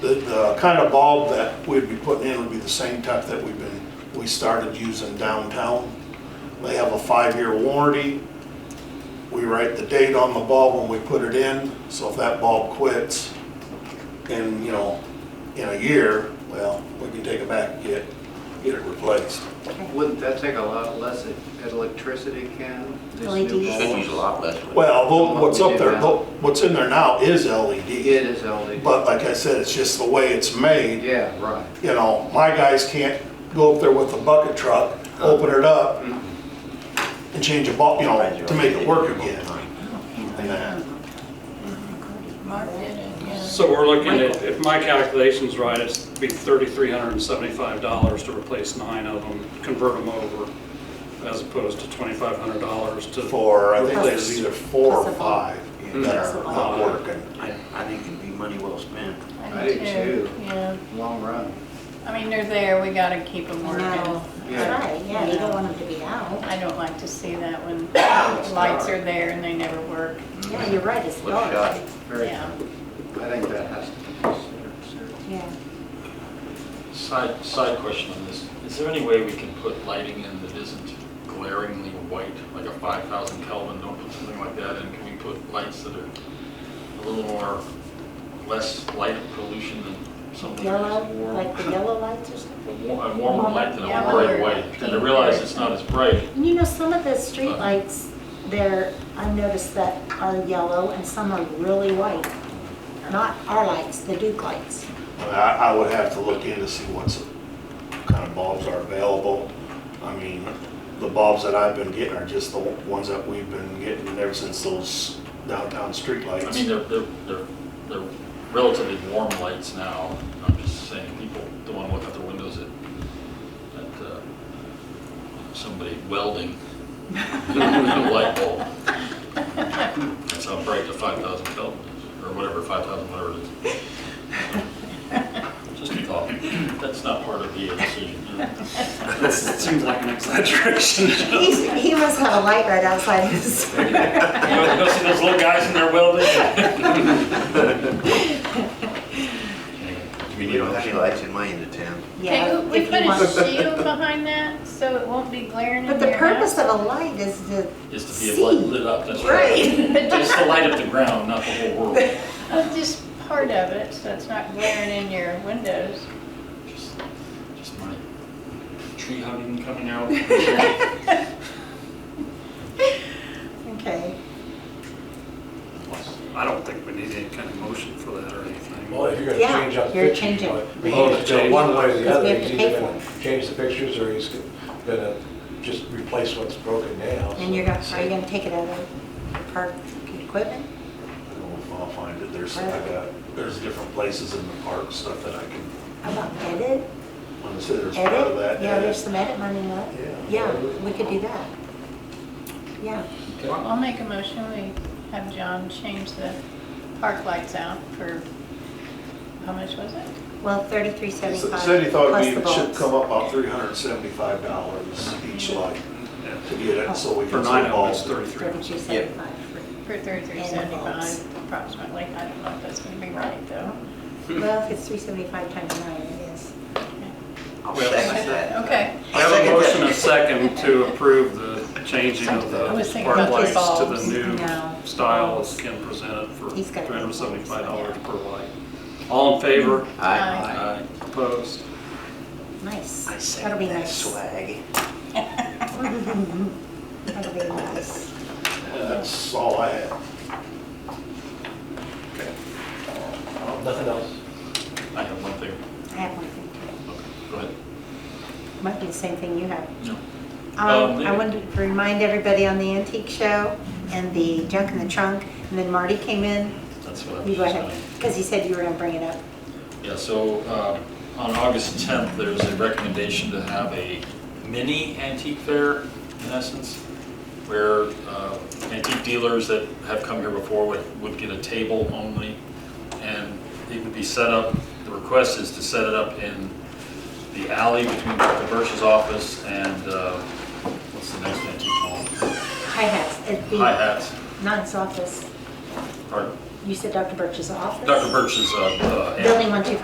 The, the kind of bulb that we'd be putting in would be the same type that we've been, we started using downtown. They have a five-year warranty. We write the date on the bulb when we put it in, so if that bulb quits in, you know, in a year, well, we can take it back and get, get it replaced. Wouldn't that take a lot less at- at electricity, Ken? This new LEDs. bulb? Should use a lot less. wood. Well, tho- what's up there, tho- what's in there now is LED, It is LED. but like I said, it's just the way it's made. Yeah, right. you know, my guys can't go up there with a bucket truck, open it up, and change a bulb, you know, to make it work again. And that. Mark did it, yeah. So we're looking at, if my calculation's right, it's be thirty-three hundred and seventy-five dollars to replace nine of them, convert them over, as opposed to twenty-five hundred dollars to. For, I think there's either four or five that are not Possible. working. I, I think it'd be money well spent. I do too. Yeah, Long run. I mean, they're there, we gotta keep them I working. know. Yeah. That's right, yeah, you don't want them to be out. I don't like to see that when lights are there and they never work. Yeah, you're right, it's Let's dark. shot. Very, Yeah. I think that has to be considered. seriously. Yeah. Side, side question on this. Is there any way we can put lighting in that isn't glaringly white, like a 5,000 Kelvin? Don't put something like that in. Can we put lights that are a little more, less light pollution than something that's Yellow, more? like the yellow lilights or something. A war- a warmer light than a Yellow bright or white. And I pink realize or- it's not as bright. And you know, some of the streetlights, there, I've noticed that are yellow and some are really white. Not our lights, the Duke lights. And I, I would have to look in to see what's, kind of bulbs are available. I mean, the bulbs that I've been getting are just the ones that we've been getting ever since those downtown streetlights. I mean, they're, they're, they're they're relatively warm lights now. I'm just saying, people don't want to look out their windows at, at uh, somebody welding with a light bulb. That's how bright the 5,000 Kelvin is, or whatever, 5,000, whatever it is. Just a thought. That's not part of the decision. you know. This seems like an exaggeration. He, he must have a light right outside his Go go see those little guys in their welding? We don't have any lights in my end of town. Yeah, Can we we if put you want- a shield behind that so it won't be glaring in But the their purpose eyes? of a light is to Is to be a light see. lit up, that's right. Right. Just to light up the ground, not the whole world. Well, Just part of it, so it's not glaring in your windows. Just just my tree hugging coming out. Okay. I don't think we need any kind of motion for that or anything. Well, if you're Yeah, gonna change up you're pictures, changing. but Oh, to he's gonna change. go one way or Because we the other, have to he's pay either for gonna change the pictures or he's gonna just replace what's broken now. And you're gonna, are you gonna take it out of the park equipment? I don't know if I'll find it, there's, I got, there's different places in the park, stuff that I can, How about edit? when I say there's part of Edit? that. Yeah, there's edit. some edit money left. Yeah. Yeah, we could do that. Yeah. I'll make a motion, we have John change the park lights out for, how much was it? Well, thirty-three He seventy-five s- Said he thought plus we the should bulbs. come up about three hundred and seventy-five dollars each light to get Oh. it, so we For can nine see of them, it's balls. thirty-three. Thirty-two seventy-five. for- For thirty-three bulbs. seventy-five approximately. I don't know if that's gonna be right though. Well, if it's three seventy-five times nine, it is. I'll Well, second that. Okay. I have a motion and a second to approve the changing of I was the thinking park about lights the to bulbs. the new No. style as Ken presented for He's got- $375 per light. All in favor? Aye. Aye. Opposed? Nice. I That'll second be that nice. swag. That'll be nice. That's all I had. Nothing else? I have one thing. I have one thing Okay, too. Go ahead. Might be the same thing you have. No. Um, Um, I they- wanted to remind everybody on the antique show and the junk in the trunk, and then Marty came in. That's what I You was go just ahead, going because he said you were gonna bring it up. Yeah, so uh, on August 10th, there's a recommendation to have a mini antique fair, in essence, where uh, antique dealers that have come here before would, would get a table only, and it would be set up, the request is to set it up in the alley between Dr. Birch's office and, uh, what's the next antique hall? Hi-hats, it'd be Hi Hats, not his office. pardon, You said Dr. Birch's office? Dr. Birch's uh, uh, aunt. Building one two five